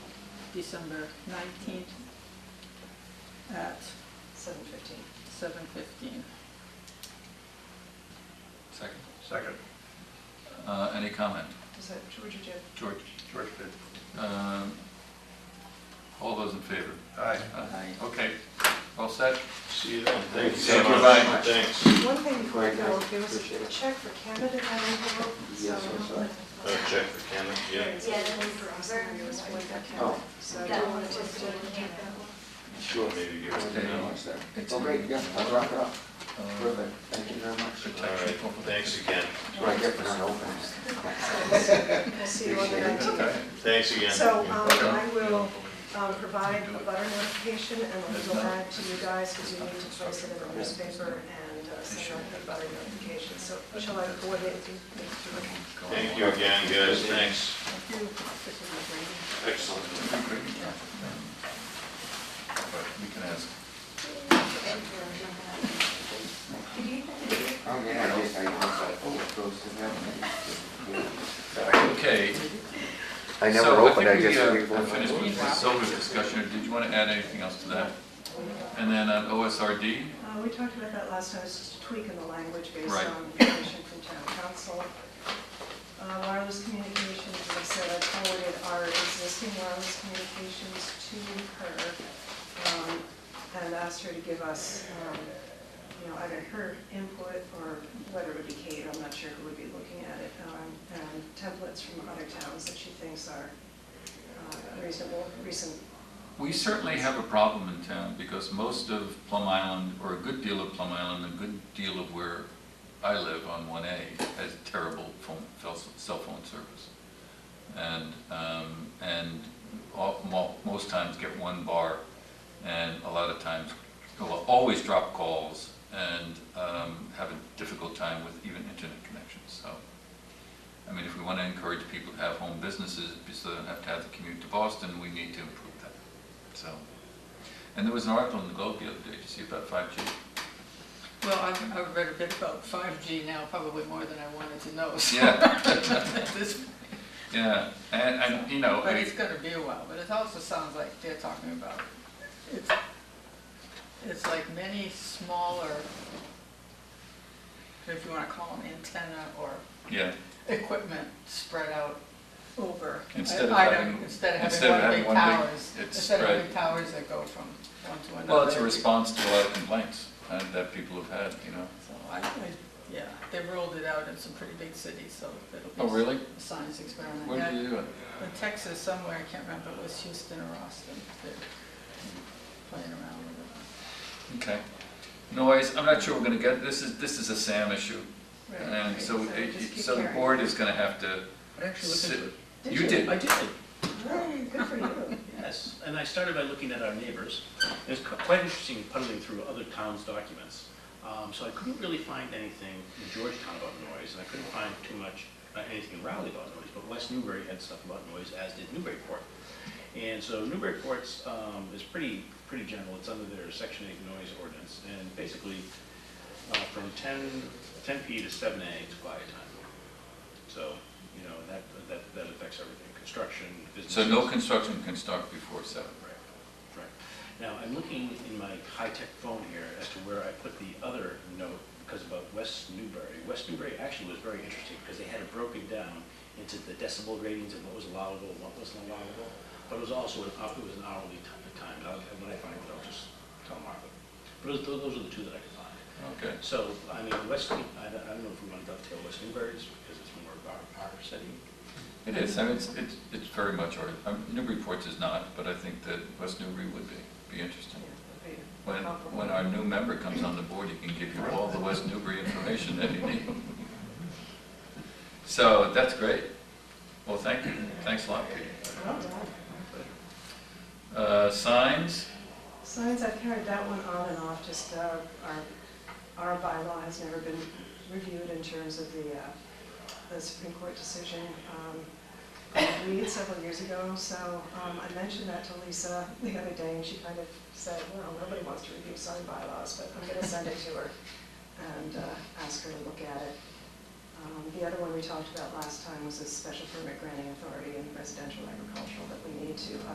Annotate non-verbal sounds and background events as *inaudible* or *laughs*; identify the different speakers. Speaker 1: December nineteenth at
Speaker 2: seven fifteen.
Speaker 1: seven fifteen.
Speaker 3: Second.
Speaker 4: Second,
Speaker 3: Uh, Any comment?
Speaker 2: Is that George or Jim?
Speaker 3: George?
Speaker 4: George did.
Speaker 3: Um, All those in favor?
Speaker 4: Aye.
Speaker 1: Aye.
Speaker 3: Okay, all set?
Speaker 5: See you then. Thank you
Speaker 3: Thank
Speaker 5: so
Speaker 3: you
Speaker 5: much.
Speaker 3: very much.
Speaker 5: Thanks.
Speaker 2: One thing before I
Speaker 6: Right,
Speaker 2: go,
Speaker 6: guys,
Speaker 2: there was a
Speaker 6: appreciate it.
Speaker 2: check for Canada that I wrote, so.
Speaker 6: Yes, I'm sorry.
Speaker 5: Uh, check for Cameron, yeah.
Speaker 2: It's
Speaker 7: Yeah,
Speaker 2: one
Speaker 7: that's
Speaker 2: for us, and
Speaker 7: very
Speaker 2: it was one
Speaker 7: important.
Speaker 2: for Canada,
Speaker 6: Oh.
Speaker 2: so I
Speaker 7: That
Speaker 2: don't
Speaker 7: one
Speaker 2: want to
Speaker 7: was
Speaker 2: just.
Speaker 7: to take that one.
Speaker 5: Sure, maybe give us a
Speaker 3: Okay.
Speaker 5: note.
Speaker 6: It's Oh, great, yeah, I'll wrap it up.
Speaker 3: Uh,
Speaker 6: Perfect, thank you very much.
Speaker 5: All right, thanks again.
Speaker 6: That's what I get for not opening.
Speaker 2: *laughs* We'll see you on the nineteenth.
Speaker 5: Thanks again.
Speaker 2: So, um, I will, um, provide a butter notification and we'll go back to you guys because you need to place it in the newspaper and uh, send out the butter notification. So shall I coordinate with you?
Speaker 5: Thank you again, guys, thanks.
Speaker 1: Thank you. This is a great-
Speaker 5: Excellent.
Speaker 3: But We can ask.
Speaker 2: uh,
Speaker 7: Could you,
Speaker 6: Oh, yeah, I guess I, oh, it goes to them.
Speaker 3: Okay.
Speaker 6: I never
Speaker 3: So
Speaker 6: opened, I
Speaker 3: think we,
Speaker 6: just.
Speaker 3: uh,
Speaker 6: we-
Speaker 3: have Finished with the silver discussion, did you want to add anything else to that? And then on OSRD,
Speaker 2: Uh, We talked about that last time, it's just a tweak in the language based
Speaker 3: Right.
Speaker 2: on information from town council. Uh, Wireless communications, as I said, I forwarded our existing wireless communications to her um, and asked her to give us, um, you know, either her input or whether it would be Kate, I'm not sure who would be looking at it, um, and templates from other towns that she thinks are uh, reasonable, recent
Speaker 3: we certainly have a problem in town because most of Plum Island, or a good deal of Plum Island, a good deal of where I live on 1A has terrible phone, fel- cell phone service. And, um, and all- mo- most times get one bar and a lot of times, well, always drop calls and um, have a difficult time with even internet connections, so. I mean, if we want to encourage people to have home businesses, so they don't have to have the commute to Boston, we need to improve that, so. And there was an article in the Globe the other day, did you see about 5G?
Speaker 1: Well, I've, I've read a bit about five G now, probably more than I wanted to know, so.
Speaker 3: Yeah,
Speaker 1: *laughs* at this
Speaker 3: yeah, and, and, you know,
Speaker 1: But
Speaker 3: I-
Speaker 1: it's gonna be a while, but it also sounds like they're talking about, it's, it's like many smaller, if you wanna call them antenna or
Speaker 3: yeah,
Speaker 1: equipment spread out over.
Speaker 3: Instead of
Speaker 1: item-
Speaker 3: having-
Speaker 1: Instead of
Speaker 3: instead of
Speaker 1: having one big
Speaker 3: having one big-
Speaker 1: towers,
Speaker 3: it's
Speaker 1: instead of having
Speaker 3: spread.
Speaker 1: towers that go from one to another.
Speaker 3: well, it's a response to a lot of complaints uh, that people have had, you know.
Speaker 1: So I, I- yeah, they rolled it out in some pretty big cities, so it'll be.
Speaker 3: Oh, really?
Speaker 1: a Science experiment.
Speaker 3: What
Speaker 1: Yeah.
Speaker 3: do you do?
Speaker 1: In Texas somewhere, I can't remember, if it was Houston or Austin, they're playing around with it.
Speaker 3: Okay. Noise, I'm not sure we're gonna get, this is, this is a SAM issue,
Speaker 1: Right,
Speaker 3: and
Speaker 1: right,
Speaker 3: so, it-
Speaker 1: just
Speaker 3: it-
Speaker 1: keep
Speaker 3: so the
Speaker 1: carrying.
Speaker 3: board is gonna have to
Speaker 8: I actually looked
Speaker 3: sit.
Speaker 8: into it.
Speaker 3: You did?
Speaker 8: I did,
Speaker 2: Hey, good for you.
Speaker 8: yes. And I started by looking at our neighbors. It was qu- quite interesting puddling through other towns' documents. Um, So I couldn't really find anything in Georgetown about noise, and I couldn't find too much, uh, anything in Raleigh about noise, but West Newbury had stuff about noise, as did Newburyport. And so Newburyport's um, is pretty, pretty general, it's under their Section 8 noise ordinance, and basically uh, from 10, 10 P to 7 A is quiet time. So, you know, that, that, that affects everything, construction, business.
Speaker 3: So no construction can start before seven.
Speaker 8: Right, right. Now, I'm looking in my high-tech phone here as to where I put the other note, because about West Newbury. West Newbury actually was very interesting, because they had it broken down into the decibel ratings and what was allowable and what wasn't allowable, but it was also, an hou- it was an hourly ti- time, and I'll- and when I find it, I'll just tell Martha. But those- those are the two that I could find.
Speaker 3: Okay.
Speaker 8: So, I mean, West, I don't I don't know if we want to dovetail West Newbury, just because it's more of our, our setting.
Speaker 3: It is, I mean, it's, it's, it's very much our, um, Newburyport is not, but I think that West Newbury would be, be interesting. When, when our new member comes on the board, he can give you all the West Newbury information that you need. So, that's great. Well, thank you, thanks a lot, Pete. Uh, signs,
Speaker 2: Signs, I've carried that one on and off, just uh, our, our bylaw has never been reviewed in terms of the, uh, the Supreme Court decision. um, on Reed several years ago, so um, I mentioned that to Lisa the other day, and she kind of said, well, nobody wants to review sign bylaws, but I'm gonna send it to her and uh, ask her to look at it. Um, The other one we talked about last time was a special permit granting authority in residential agricultural that we need to